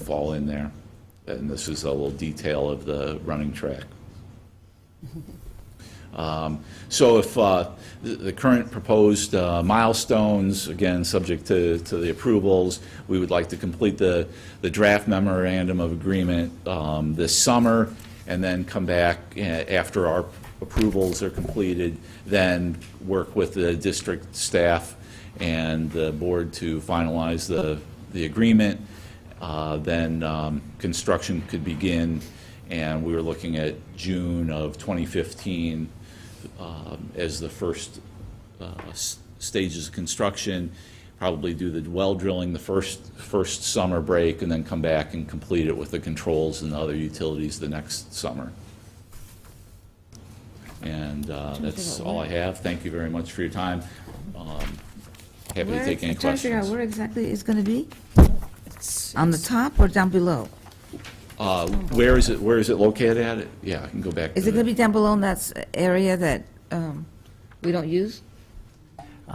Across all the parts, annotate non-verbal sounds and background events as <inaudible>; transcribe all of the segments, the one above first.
of all in there. And this is a little detail of the running track. Um, So if uh, the the current proposed uh, milestones, again, subject to to the approvals, we would like to complete the the draft memorandum of agreement um, this summer, and then come back eh, after our approvals are completed, then work with the district staff and the board to finalize the the agreement. Uh, Then um, construction could begin and we were looking at June of 2015 um, as the first uh, s- stages of construction, probably do the well drilling the first, first summer break, and then come back and complete it with the controls and the other utilities the next summer. And uh, that's all I have. Thank you very much for your time. Um, Happy to Where- take any I'm trying to figure out questions. where exactly it's gonna be? On the top or down below? Uh, Where is it, where is it located at? Yeah, I can go back. Is to it gonna the- be down below in that s- area that, um, we don't use?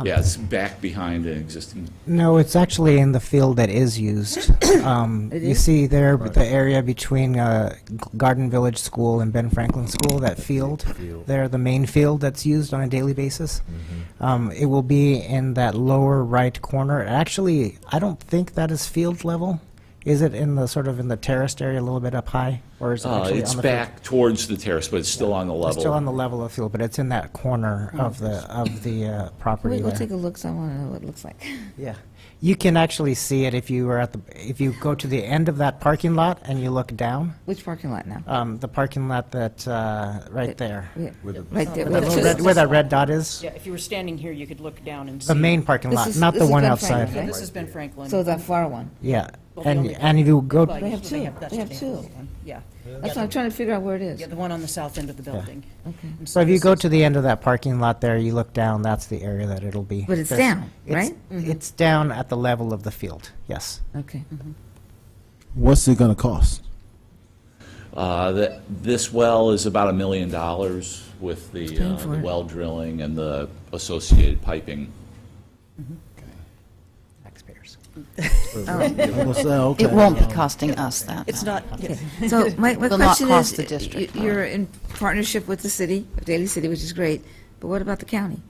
Yeah, it's back behind an existing No, it's actually in the field that is used. Um, <coughs> It You is? see there, the area between uh, G- Garden Village School and Ben Franklin School, that field, there, the main field that's used on a daily basis. Mm-hmm. Um, It will be in that lower right corner. Actually, I don't think that is field level. Is it in the, sort of in the terraced area a little bit up high? Or is it Uh, actually It's on the field? back towards the terrace, but it's still on the It's still on level. the level of field, but it's in that corner of the, of the uh, property Wait, there. we'll take a look, so I wanna know what it looks like. <laughs> Yeah, you can actually see it if you were at the, if you go to the end of that parking lot and you look down, Which parking lot now? um, the parking lot that, uh, right there. Yeah, With the- Right there. Where where that little the- red, where that red dot is, Yeah, if you were standing here, you could look down and see. the main parking This lot, is- not this the is one Ben outside. Franklin, Yeah, right? this has been Franklin. So that far one. Yeah, Well, the and, only- and if you go, Well, They have usually two. that's They have the two. only one. Yeah. That's what I'm trying to figure out where it is. Yeah, the one on the south end of the building. Okay. And so if you this go is- to the end of that parking lot there, you look down, that's the area that it'll be. But it's There's- down, it's- right? Mm-hmm. It's down at the level of the field, yes. Okay. What's it gonna cost? Uh, that- This well is about a million dollars with the paying uh, for the it. well drilling and the associated piping. Taxpayers. I'm gonna say, okay. It won't be costing us that. It's much. not, yeah, So my, my Will not question cost the is, y- district, no. you're in partnership with the city, Daly City, which is great, but what about the county?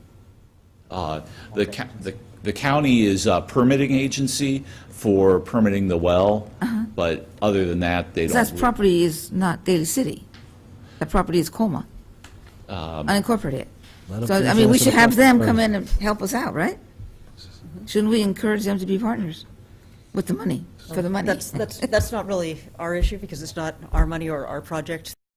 Uh, The ca- the the county is a permitting agency for permitting the well, but other than that, they 'Cause don't. that Uh-huh. property is not Daly City. That property is Colma, unincorporated. Let 'em So, I finish mean, we answering should the have them come in question and help us out, right? Shouldn't we encourage them to be partners with the money, for the money? That's, that's, that's not really our issue, because it's not our money or our project.